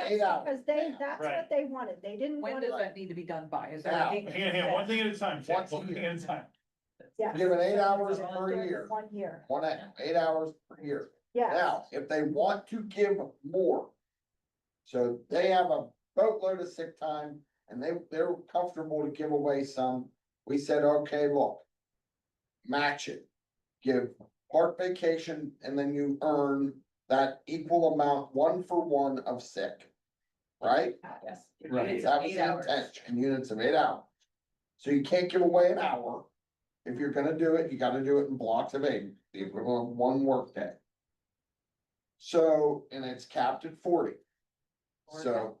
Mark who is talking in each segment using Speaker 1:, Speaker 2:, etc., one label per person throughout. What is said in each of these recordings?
Speaker 1: Laid out.
Speaker 2: Because they, that's
Speaker 3: Right.
Speaker 2: what they wanted. They didn't
Speaker 4: When
Speaker 2: want
Speaker 4: does
Speaker 2: to,
Speaker 4: that need to be done by? Is
Speaker 1: Now.
Speaker 4: that?
Speaker 3: Hang on, hang on, one thing at a time, Jack,
Speaker 1: Once a
Speaker 3: one thing
Speaker 1: year.
Speaker 3: at a time.
Speaker 2: yeah.
Speaker 1: Given eight hours per
Speaker 2: During the
Speaker 1: year,
Speaker 2: One year,
Speaker 1: one, act- eight hours per year.
Speaker 2: yeah.
Speaker 1: Now, if they want to give more. So they have a boatload of sick time and they, they're comfortable to give away some. We said, okay, look. Match it. Give part vacation and then you earn that equal amount, one for one of sick. Right?
Speaker 4: Yes.
Speaker 3: Right.
Speaker 1: That was the intention, in units of eight hours. So you can't give away an hour. If you're gonna do it, you gotta do it in blocks of eight, the equivalent of one workday. So, and it's capped at forty. So,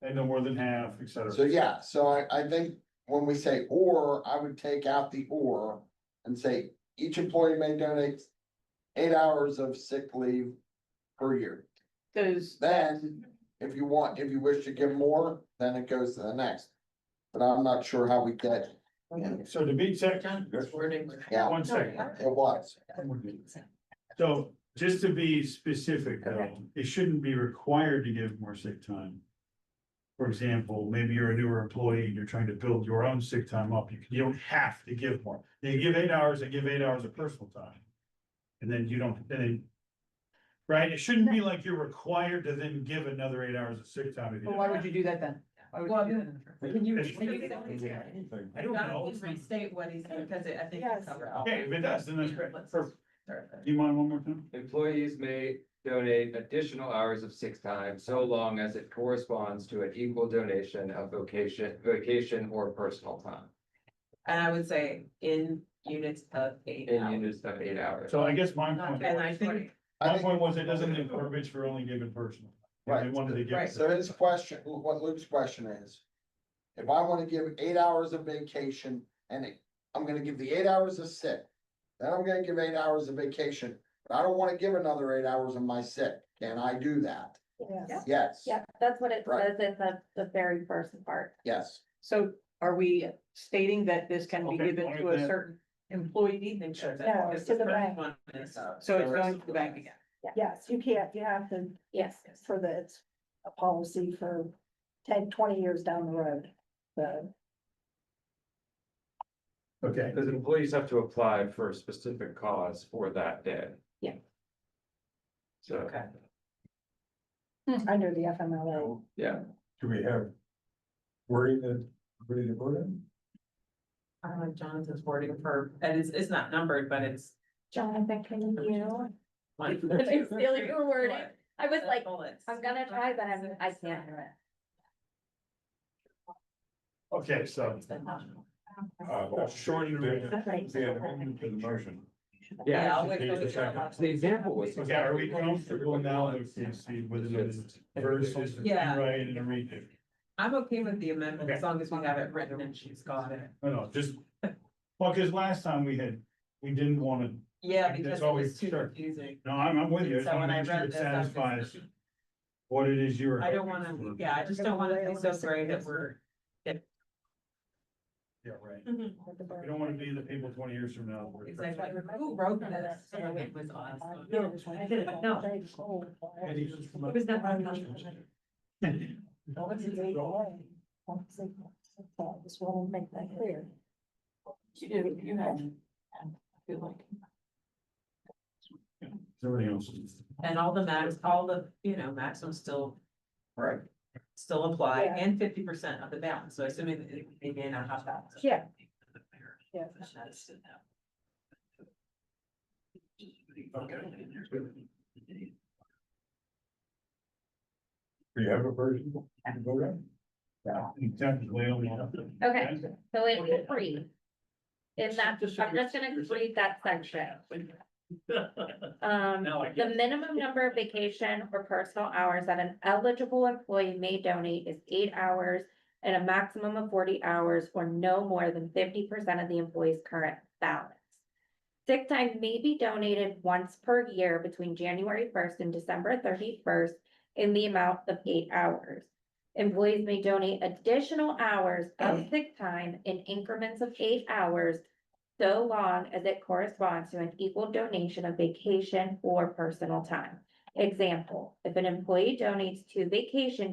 Speaker 3: And no more than half, et cetera.
Speaker 1: so yeah, so I, I think when we say or, I would take out the or and say each employee may donate eight hours of sick leave per year.
Speaker 4: Does.
Speaker 1: Then, if you want, if you wish to give more, then it goes to the next. But I'm not sure how we get,
Speaker 3: So to be checked,
Speaker 4: wording.
Speaker 1: Yeah.
Speaker 3: one second.
Speaker 1: it was,
Speaker 3: So just to be specific though, it shouldn't be required to give more sick time. For example, maybe you're a newer employee and you're trying to build your own sick time up. You, you don't have to give more. They give eight hours, they give eight hours of personal time. And then you don't, then. Right? It shouldn't be like you're required to then give another eight hours of sick time. if you
Speaker 4: Well,
Speaker 3: don't-
Speaker 4: why would you do that then? Why would you do that?
Speaker 5: Can you?
Speaker 3: It's- I don't know.
Speaker 5: Restate what he said, because I think.
Speaker 2: Yes.
Speaker 3: Okay, if it does, then that's great. Perfect. Do you mind one more time?
Speaker 6: Employees may donate additional hours of sick time so long as it corresponds to an equal donation of vocation, vacation or personal time.
Speaker 5: And I would say in units of eight
Speaker 6: In
Speaker 5: hours.
Speaker 6: units of eight hours.
Speaker 3: So I guess my
Speaker 5: Not-
Speaker 3: point,
Speaker 5: And I think,
Speaker 1: I
Speaker 3: my
Speaker 1: think,
Speaker 3: point was it doesn't leave verbiage for only given personal. If They
Speaker 1: Right.
Speaker 3: wanted to
Speaker 5: Right.
Speaker 3: give.
Speaker 1: so his question, what Luke's question is. If I wanna give eight hours of vacation and I'm gonna give the eight hours of sick. Then I'm gonna give eight hours of vacation, but I don't wanna give another eight hours of my sick, can I do that?
Speaker 2: Yes.
Speaker 1: Yes,
Speaker 7: Yeah, that's what it
Speaker 1: Right.
Speaker 7: says in the, the very first part.
Speaker 1: yes,
Speaker 4: So are we stating that this can be
Speaker 3: Okay,
Speaker 4: given
Speaker 3: why
Speaker 4: to a
Speaker 3: then-
Speaker 4: certain employee?
Speaker 5: make sure
Speaker 2: No,
Speaker 5: that. because
Speaker 2: to the
Speaker 5: first
Speaker 2: bank.
Speaker 5: one is, uh,
Speaker 4: So it's going to the bank again.
Speaker 2: Yes, you can't, you have to,
Speaker 7: Yes.
Speaker 2: for the, it's a policy for 10, 20 years down the road. So,
Speaker 3: Okay.
Speaker 6: Because employees have to apply for a specific cause for that day.
Speaker 7: Yeah.
Speaker 6: So,
Speaker 5: Okay.
Speaker 2: under the FMLA.
Speaker 6: yeah,
Speaker 8: Do we have wording that, ready to vote on?
Speaker 5: I don't know if Jonathan's wording for, and it's, it's not numbered, but it's.
Speaker 7: Jonathan, can you?
Speaker 5: one.
Speaker 7: Let me steal your wording.
Speaker 5: What?
Speaker 7: I was
Speaker 5: The
Speaker 7: like,
Speaker 5: bullets.
Speaker 7: I'm gonna try, but I'm, I can't.
Speaker 3: Okay, so
Speaker 8: Uh,
Speaker 3: short and
Speaker 8: then- then
Speaker 3: quick.
Speaker 8: the amendment to the motion.
Speaker 5: Yeah,
Speaker 6: yeah.
Speaker 5: I'll wait for the-
Speaker 6: The example was.
Speaker 3: Okay, are we comfortable now with this, with the verse,
Speaker 5: Yeah.
Speaker 3: right, and a redo?
Speaker 5: I'm okay with the amendment as
Speaker 3: Okay.
Speaker 5: long as we have it written and she's got it.
Speaker 3: No, no, just, well, because last time we had, we didn't want to,
Speaker 5: Yeah,
Speaker 3: That's
Speaker 5: because it
Speaker 3: always
Speaker 5: was too
Speaker 3: sure.
Speaker 5: confusing.
Speaker 3: no, I'm, I'm with you. I just
Speaker 5: So
Speaker 3: wanna
Speaker 5: when I
Speaker 3: make sure
Speaker 5: read
Speaker 3: it
Speaker 5: this, I'm just-
Speaker 3: Satisfies what it is you're.
Speaker 5: I don't wanna,
Speaker 3: hoping for.
Speaker 5: yeah, I just don't wanna be so sorry that we're.
Speaker 3: Yeah, right. We don't want to be the people twenty years from now. we're-
Speaker 5: Exactly, who wrote this? So It was us. No.
Speaker 3: And he's just-
Speaker 5: It was not my
Speaker 2: This will make that clear.
Speaker 4: You do, you have. I feel like.
Speaker 3: Somebody else's.
Speaker 5: And all the max, all the, you know, maxims still,
Speaker 1: right,
Speaker 5: still apply
Speaker 2: Yeah.
Speaker 5: and fifty percent of the balance, so assuming that it- they may not have that.
Speaker 2: Yeah. Yeah.
Speaker 3: Okay.
Speaker 8: Do you have a version to vote on?
Speaker 3: Exactly.
Speaker 7: Okay, so
Speaker 3: Okay.
Speaker 7: it's free. In that, I'm just gonna read that section. Um,
Speaker 3: Now I get
Speaker 7: the minimum number of vacation or personal hours that an eligible employee may donate is eight hours and a maximum of forty hours or no more than fifty percent of the employee's current balance. Sick time may be donated once per year between January first and December thirty-first in the amount of eight hours. Employees may donate additional hours of sick time in increments of eight hours so long as it corresponds to an equal donation of vacation or personal time. Example, if an employee donates two vacation days.